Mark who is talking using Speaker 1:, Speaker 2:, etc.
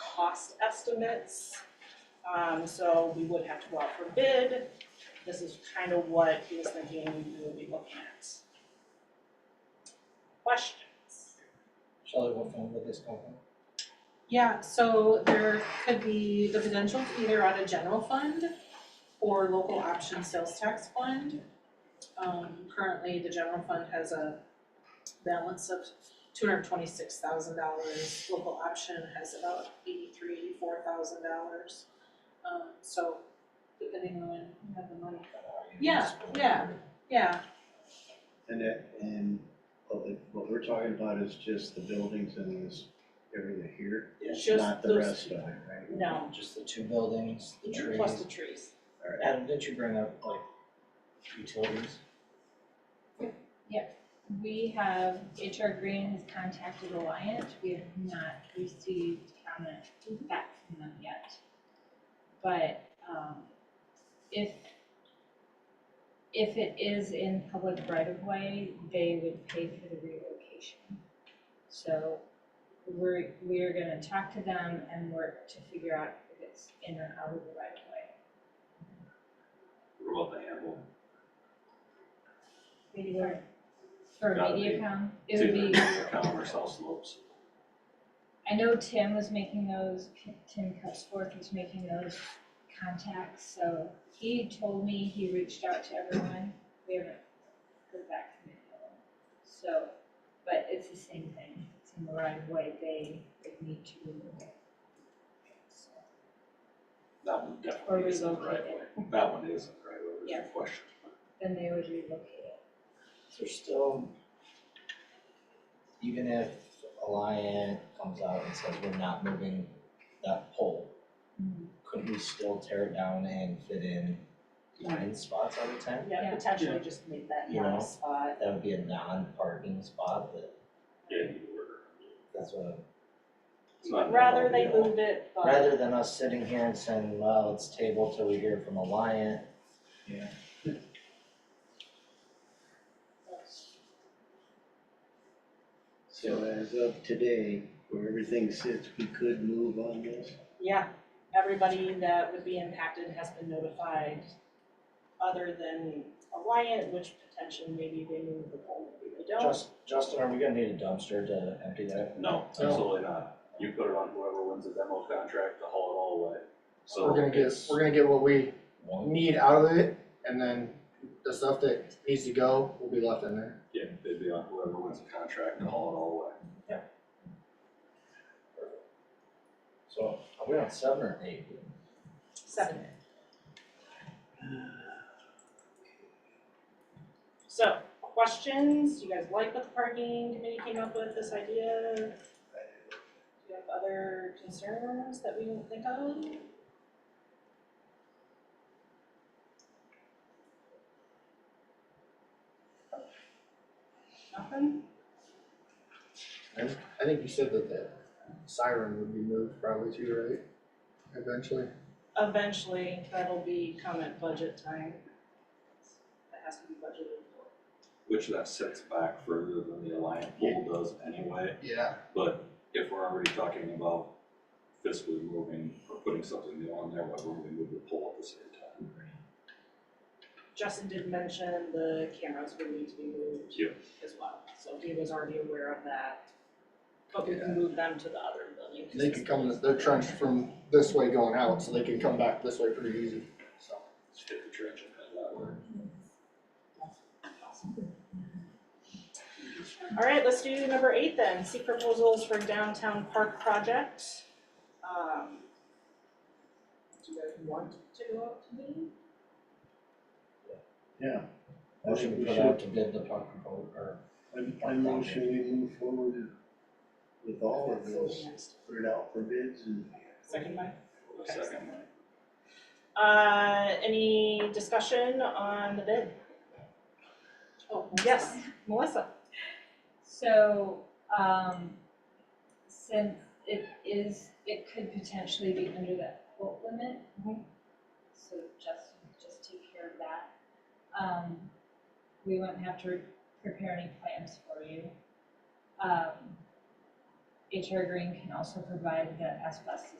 Speaker 1: cost estimates. Um, so we would have to go out for bid. This is kind of what he was thinking we would be looking at. Questions?
Speaker 2: Shelley, what phone would this come from?
Speaker 3: Yeah, so there could be the potential to either on a general fund or local option sales tax fund. Um, currently, the general fund has a balance of two hundred twenty-six thousand dollars, local option has about eighty-three, four thousand dollars. Um, so depending on when you have the money. Yeah, yeah, yeah,
Speaker 4: And that, and what we- what we're talking about is just the buildings and this area here,
Speaker 1: It's just
Speaker 4: not the
Speaker 1: those-
Speaker 4: rest of it, right?
Speaker 1: No,
Speaker 2: Just the two buildings, the trees.
Speaker 1: plus the trees.
Speaker 4: Alright,
Speaker 2: Adam, didn't you bring up like utilities?
Speaker 5: We have, HR Green has contacted Alliant, we have not received comment back from them yet. But, um, if, if it is in public right of way, they would pay for the relocation. So we're, we're gonna talk to them and work to figure out if it's in or out of the right of way.
Speaker 6: What about the handle?
Speaker 5: Media. For
Speaker 6: Gotta be.
Speaker 5: MediaCom, it would be.
Speaker 6: It's either Common or South Slopes.
Speaker 5: I know Tim was making those, Tim Cusworth was making those contacts, so he told me he reached out to everyone. We haven't heard back from any of them. So, but it's the same thing, it's in the right way, they, they need to remove it. So,
Speaker 6: That one
Speaker 5: Or
Speaker 6: definitely isn't the right
Speaker 5: relocate
Speaker 6: way. That one isn't the right way, there's
Speaker 5: Yeah.
Speaker 6: a question.
Speaker 5: Then they would relocate it.
Speaker 2: There's still, even if Alliant comes out and says we're not moving that pole, couldn't we still tear it down and fit in nine spots out of ten?
Speaker 5: Yeah.
Speaker 1: potentially just make that
Speaker 2: You know.
Speaker 1: last spot.
Speaker 2: That would be a non-parking spot, but
Speaker 6: Yeah, you were.
Speaker 2: that's what,
Speaker 6: It's not.
Speaker 1: Rather they
Speaker 2: Yeah.
Speaker 1: move it, but.
Speaker 2: rather than us sitting here and saying, well, it's table till we hear from Alliant.
Speaker 4: so as of today, where everything sits, we could move on this?
Speaker 1: Yeah, everybody that would be impacted has been notified, other than Alliant, which potentially maybe they move the pole, maybe they don't.
Speaker 2: Just, Justin, are we gonna need a dumpster to empty that?
Speaker 6: No, absolutely not. You put it on whoever wins the demo contract to haul it all away. So
Speaker 7: We're gonna get,
Speaker 6: it's-
Speaker 7: we're gonna get what we
Speaker 2: One,
Speaker 7: need out of it, and then the stuff that needs to go will be left in there.
Speaker 6: Yeah, they'd be on whoever wins the contract to haul it all away.
Speaker 2: so are we on seven or eight?
Speaker 1: Seven. So, questions, you guys like what the parking committee came up with, this idea? Do you have other concerns that we didn't think of? Nothing?
Speaker 7: I think you said that the siren would be moved probably too, right? Eventually.
Speaker 1: Eventually, that'll be comment budget time. That has to be budgeted for.
Speaker 6: Which that sits back further than the Alliant pool does anyway.
Speaker 7: Yeah.
Speaker 6: But if we're already talking about fiscally moving or putting something new on there, why wouldn't we move the pole at the same time?
Speaker 1: Justin did mention the cameras would need to be moved
Speaker 6: Yep.
Speaker 1: as well, so he was already aware of that. But we can move them to the other building. 'cause
Speaker 7: They
Speaker 1: it's-
Speaker 7: could come, this- they're trenched from this way going out, so they can come back this way pretty easy, so.
Speaker 6: Just hit the trench and head that way.
Speaker 1: All right, let's do number eight then, seek proposals for downtown park project. Um, Do you guys want to go out to bid?
Speaker 4: Yeah. I
Speaker 2: Or should
Speaker 4: think
Speaker 2: we
Speaker 4: we
Speaker 2: put out
Speaker 4: should,
Speaker 2: to bid the park proposal or
Speaker 4: I, I motion we move forward with all of this, put it out for bids and
Speaker 1: Second by.
Speaker 6: Hold a second, Mike.
Speaker 1: Uh, any discussion on the bid?
Speaker 3: oh,
Speaker 1: Yes, Melissa?
Speaker 5: So, um, since it is, it could potentially be under that quote limit.
Speaker 1: Mhm.
Speaker 5: So just, just take care of that. Um, we wouldn't have to prepare any plans for you. Um, HR Green can also provide the asbestos